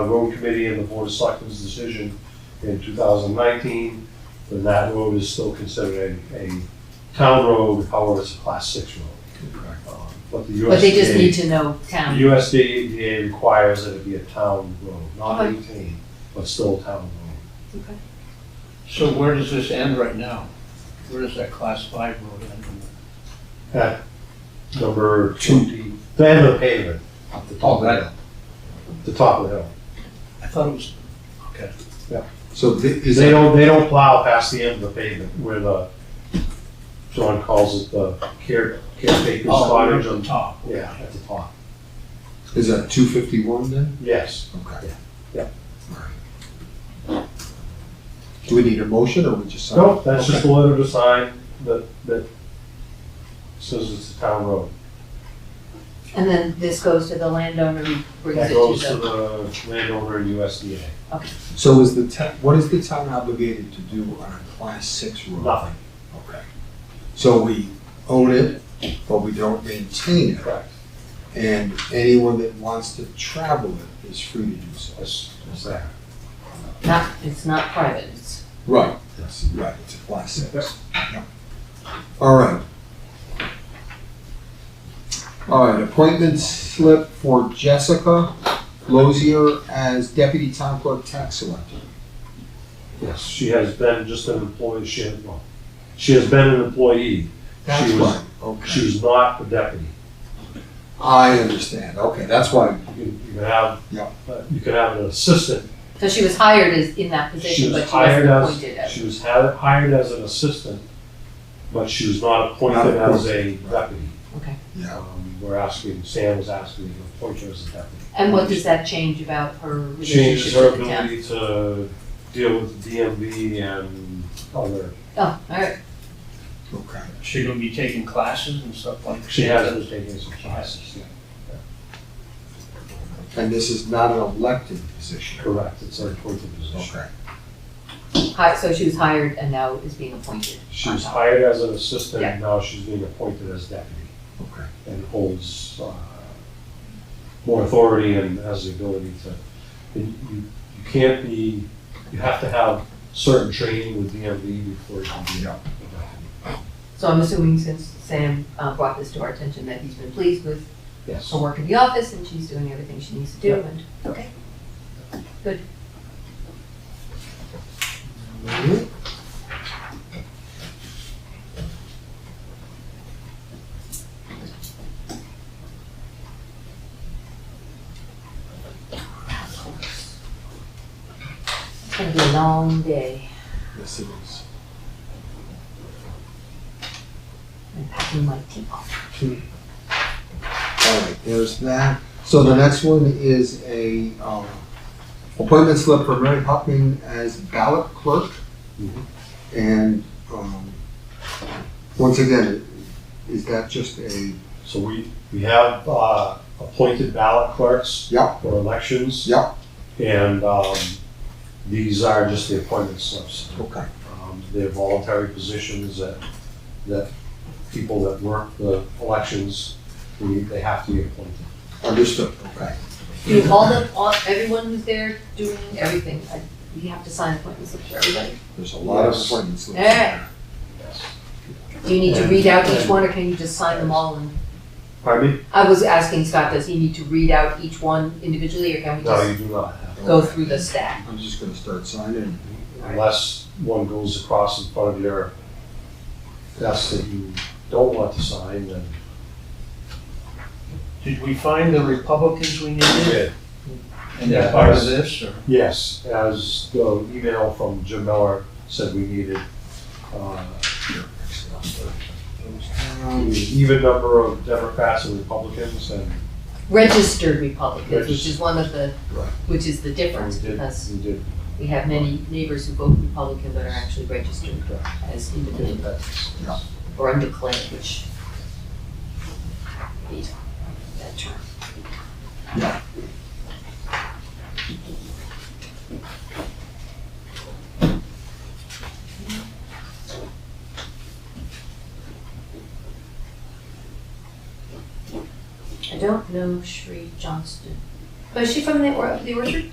the road committee and the board of selectmen's decision in two thousand nineteen, then that road is still considered a, a town road, however, it's a class six road. Um, But the USDA. But they just need to know town. The USDA requires that it be a town road, not Okay. maintained, but still a town road. So where does this end right now? Where does that class five road end? At number two, the end of the pavement, at the top of the hill. The top of the hill. I thought it was, So thi- is They that, don't, they don't plow past the end of the pavement where the, John calls it the care, caretaker's oh, we're at cottage the on, top. yeah, at the top. is that two fifty-one then? Yes, Okay. Yeah. Alright. Do we need a motion or we just? sign? no, that's just Okay. a letter to sign that, that says it's a town road. And then this goes to the landowner who brings it That goes to to the, the landowner and USDA. So is the town, what is the town obligated to do on a class six road? Nothing. Okay. So we own it, but we don't maintain it, Correct. and anyone that wants to travel it is free to do so. That's, that's that. not, it's not private, it's, Right. Yes. Right, it's a class six. Yep. All right. All right, appointment slip for Jessica Lozier as deputy town clerk tax collector. Yes, she has been just an employee, she has, well, she has been an employee. That's She was- right, okay. She's not a deputy. I understand, okay, that's why, You can, you can have, Yeah. uh, you can have an assistant so she was hired as, in that She was position, but she wasn't hired as, appointed as. she was ha- hired as an assistant, but she was not appointed Not as a deputy. yeah, Um, We're asking, Sam was asking to appoint her as a deputy. And what does that change about her Changes relationship her with the town? ability to deal with the DMV and other, Oh, all right, okay. She gonna be taking classes and stuff like that? she has been taking some classes. yeah. And this is not an elected position. Correct, it's an appointed position. Okay. hi, so she was hired and now is being appointed. Uh, She was hired as an assistant, Yeah. and now she's being appointed as deputy Okay. and holds uh, more authority and has the ability to, and you, you can't be, you have to have certain training with DMV before you can be. Yeah. So I'm assuming since Sam uh, brought this to our attention, that he's been pleased with Yes. her work in the office and she's doing everything she needs to do and, okay. Mm-hmm. It's gonna be a long day, Yes, it is. I'm packing my teapot. All right, there's that. So the next one is a, um, appointment slip for Mary Hopkin as ballot clerk. Mhm. And, um, once again, is that just a, So we, we have uh, appointed ballot clerks. Yeah. For elections. Yeah. And um, these are just the appointment slips. okay, Um, They're voluntary positions that, that people that work the elections, we- they have to be appointed. understood, okay. You, all the, all, everyone who's there doing everything, I, we have to sign appointment slips for everybody. There's a lot of Yes. appointment slips. Yeah. Yes. Do you need to read out each one, or can you just sign them all and? Pardon me? I was asking Scott, does he need to read out each one individually, or can we No, just you do not have, go Okay. through the stack? I'm just gonna start signing. unless one goes across in front of your desk that you don't want to sign, then. Did we find the Republicans we needed? And Yeah. they're part of this, or? Yes, as the email from Jim Miller said we needed, uh, Um, even number of Democrats and Republicans, and Registered Republicans, which Registered. is one of the, Right. which is the difference, we did, because we did we have many neighbors who vote Republican but are actually registered Correct. as get independent that. Yeah. or undeclared, which. That term. I don't know Sheree Johnston. But is she Oh, from the, or, the orchard?